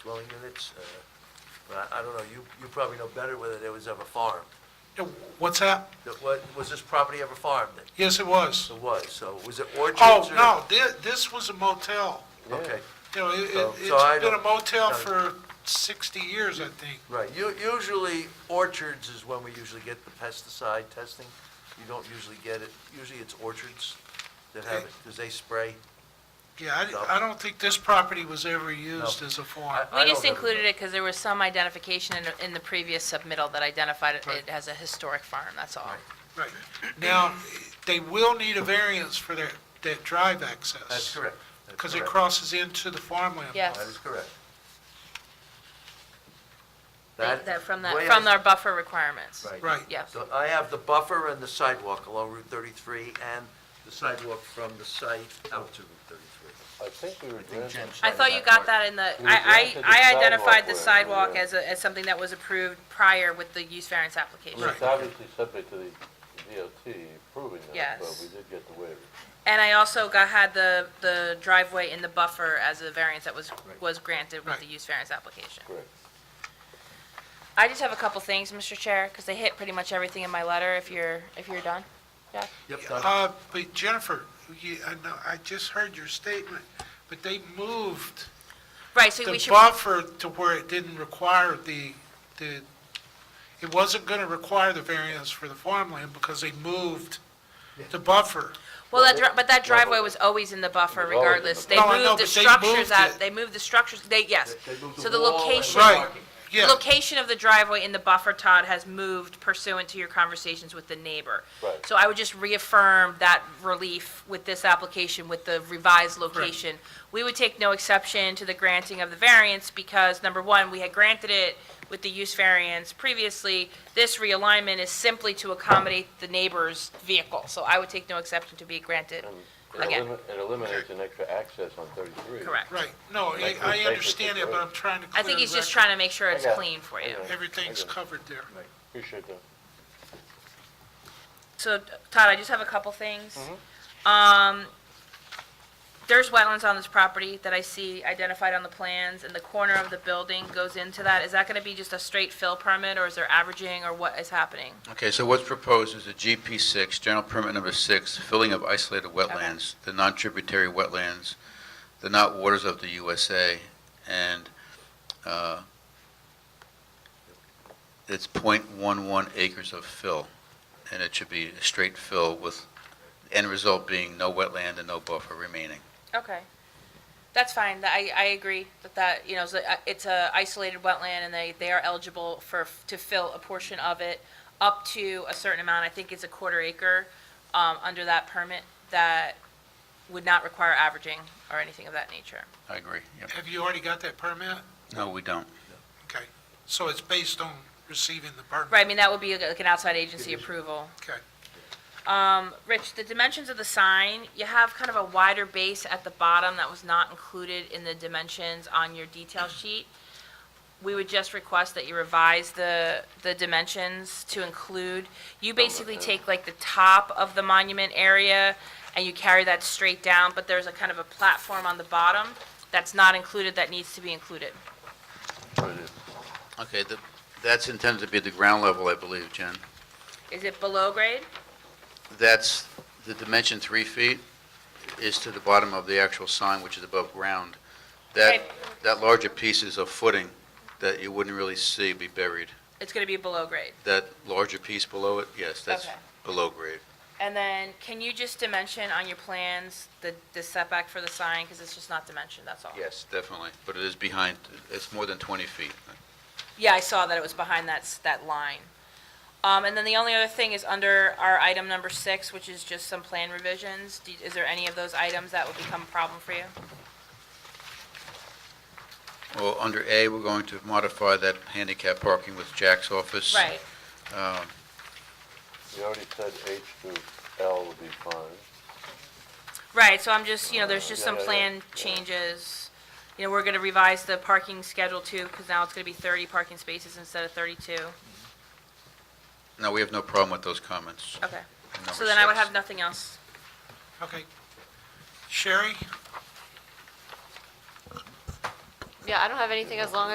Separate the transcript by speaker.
Speaker 1: dwelling units? uh, But I I don't know, you, you probably know better whether there was ever farmed.
Speaker 2: Yeah, What's that?
Speaker 1: That what- Was this property ever farmed?
Speaker 2: Yes, it was.
Speaker 1: It was, so was it orchards?
Speaker 2: Oh,
Speaker 1: or-
Speaker 2: no, thi- this was a motel.
Speaker 1: Okay,
Speaker 2: You know, it-
Speaker 1: So-
Speaker 2: it-
Speaker 1: so I
Speaker 2: it's been a
Speaker 1: don't-
Speaker 2: motel
Speaker 1: no.
Speaker 2: for 60 years, I think.
Speaker 1: right. U- Usually orchards is when we usually get the pesticide testing. You don't usually get it, usually it's orchards that have it, because they spray.
Speaker 2: Yeah, I di-
Speaker 1: No.
Speaker 2: I don't think this property was ever used as a farm.
Speaker 1: I
Speaker 3: We just
Speaker 1: don't know.
Speaker 3: included it because there was some identification in, in the previous submittal that identified it
Speaker 2: Right.
Speaker 3: it as a historic farm, that's all.
Speaker 2: Right. Now, they will need a variance for their, that drive access.
Speaker 1: That's correct. That's
Speaker 2: Because it
Speaker 1: correct.
Speaker 2: crosses into the farmland.
Speaker 3: Yes.
Speaker 1: That is correct.
Speaker 3: That, that- from that,
Speaker 1: way
Speaker 3: from
Speaker 1: I-
Speaker 3: our buffer requirements.
Speaker 2: Right.
Speaker 3: Yes.
Speaker 1: So I have the buffer and the sidewalk along Route 33 and the sidewalk from the site out to Route 33.
Speaker 4: I think we were
Speaker 1: I think
Speaker 4: granted,
Speaker 1: Jen
Speaker 3: I
Speaker 1: started
Speaker 3: thought you got
Speaker 1: part.
Speaker 3: that in the,
Speaker 4: We
Speaker 3: I,
Speaker 4: adopted the
Speaker 3: I, I identified the
Speaker 4: sidewalk waiver,
Speaker 3: sidewalk
Speaker 4: yeah.
Speaker 3: as, a- as something that was approved prior with the use variance
Speaker 4: it
Speaker 3: application.
Speaker 4: was obviously subject to the DOT approving that, but
Speaker 3: Yes.
Speaker 4: we did get the waiver.
Speaker 3: And I also got, had the, the driveway in the buffer as a variance that was, was granted with the
Speaker 2: Right.
Speaker 3: use variance application.
Speaker 4: Correct.
Speaker 3: I just have a couple things, Mr. Chair, because they hit pretty much everything in my letter, if you're, if you're done. Jack?
Speaker 1: Yep, done.
Speaker 2: Uh, But Jennifer, you, I know, I just heard your statement, but they moved
Speaker 3: Right, so we
Speaker 2: the
Speaker 3: should.
Speaker 2: buffer to where it didn't require the, the, it wasn't going to require the variance for the farmland because they moved the buffer.
Speaker 3: Well, that, dri- but that driveway was always in the buffer
Speaker 4: It was always in the
Speaker 3: regardless. They
Speaker 2: No, I know,
Speaker 3: moved the
Speaker 2: but they
Speaker 3: structures
Speaker 2: moved
Speaker 3: out,
Speaker 2: it.
Speaker 3: they moved the structures, they, yes.
Speaker 1: They- they moved the
Speaker 3: So the
Speaker 1: wall and the
Speaker 3: location,
Speaker 2: Right,
Speaker 1: parking.
Speaker 2: yeah.
Speaker 3: location of the driveway in the buffer, Todd, has moved pursuant to your conversations with the neighbor.
Speaker 4: Right.
Speaker 3: So I would just reaffirm that relief with this application, with the revised location. We would take no exception to the granting of the variance because, number one, we had granted it with the use variance previously. This realignment is simply to accommodate the neighbor's vehicle, so I would take no exception to be granted
Speaker 4: And it
Speaker 3: again.
Speaker 4: elimi- it eliminates an extra access on 33.
Speaker 3: Correct.
Speaker 2: Right, no, I- I understand it, but I'm trying to clear
Speaker 3: I
Speaker 2: the
Speaker 3: think he's just
Speaker 2: record.
Speaker 3: trying to make sure it's
Speaker 4: I got it.
Speaker 3: clean for
Speaker 4: I
Speaker 3: you.
Speaker 4: got it.
Speaker 2: Everything's
Speaker 4: I got it.
Speaker 2: covered there.
Speaker 4: Appreciate that.
Speaker 3: So, Todd, I just have a couple things. Um, There's wetlands on this property that I see identified on the plans, and the corner of the building goes into that. Is that gonna be just a straight fill permit, or is there averaging, or what is happening?
Speaker 5: Okay, so what's proposed is a GP six, general permit number six, filling of isolated wetlands, the non-tributary wetlands, the not waters of the USA, and, uh, it's 0.11 acres of fill, and it should be a straight fill with, end result being no wetland and no buffer remaining.
Speaker 3: Okay. That's fine, That- I, I agree that that, you know, is a- it's a isolated wetland, and they, they are eligible for, to fill a portion of it up to a certain amount, I think it's a quarter acre, um, under that permit, that would not require averaging or anything of that nature.
Speaker 5: I agree, yep.
Speaker 2: Have you already got that permit?
Speaker 5: No, we don't.
Speaker 2: Okay, so it's based on receiving the permit?
Speaker 3: Right, I mean, that would be like an outside agency approval.
Speaker 2: Okay.
Speaker 3: Um, Rich, the dimensions of the sign, you have kind of a wider base at the bottom that was not included in the dimensions on your detail sheet. We would just request that you revise the, the dimensions to include, you basically take like the top of the monument area and you carry that straight down, but there's a kind of a platform on the bottom that's not included that needs to be included.
Speaker 4: So it is.
Speaker 5: Okay, the, that's intended to be at the ground level, I believe, Jen.
Speaker 3: Is it below grade?
Speaker 5: That's, the dimension three feet is to the bottom of the actual sign, which is above ground. That,
Speaker 3: Okay.
Speaker 5: that larger piece is a footing that you wouldn't really see be buried.
Speaker 3: It's gonna be below grade.
Speaker 5: That larger piece below it, yes, that's
Speaker 3: Okay.
Speaker 5: below grade.
Speaker 3: And then, can you just dimension on your plans the, the setback for the sign, because it's just not dimensioned, that's all?
Speaker 5: Yes, definitely, but it is behind, it's more than 20 feet.
Speaker 3: Yeah, I saw that it was behind that, s- that line. Um, and then the only other thing is under our item number six, which is just some plan revisions, Do- is there any of those items that would become a problem for you?
Speaker 5: Well, under A, we're going to modify that handicap parking with Jack's office.
Speaker 3: Right,
Speaker 5: Um,
Speaker 4: You already said H to L would be fine.
Speaker 3: right, so I'm just, you know, there's just
Speaker 4: Yeah,
Speaker 3: some
Speaker 4: yeah, yeah.
Speaker 3: plan changes. You know, we're gonna revise the parking schedule too, because now it's gonna be thirty parking spaces instead of thirty-two,
Speaker 5: No, we have no problem with those comments.
Speaker 3: okay.
Speaker 5: in number
Speaker 3: So then I would
Speaker 5: six.
Speaker 3: have nothing else.
Speaker 2: Okay. Sherry?
Speaker 6: Yeah, I don't have anything as long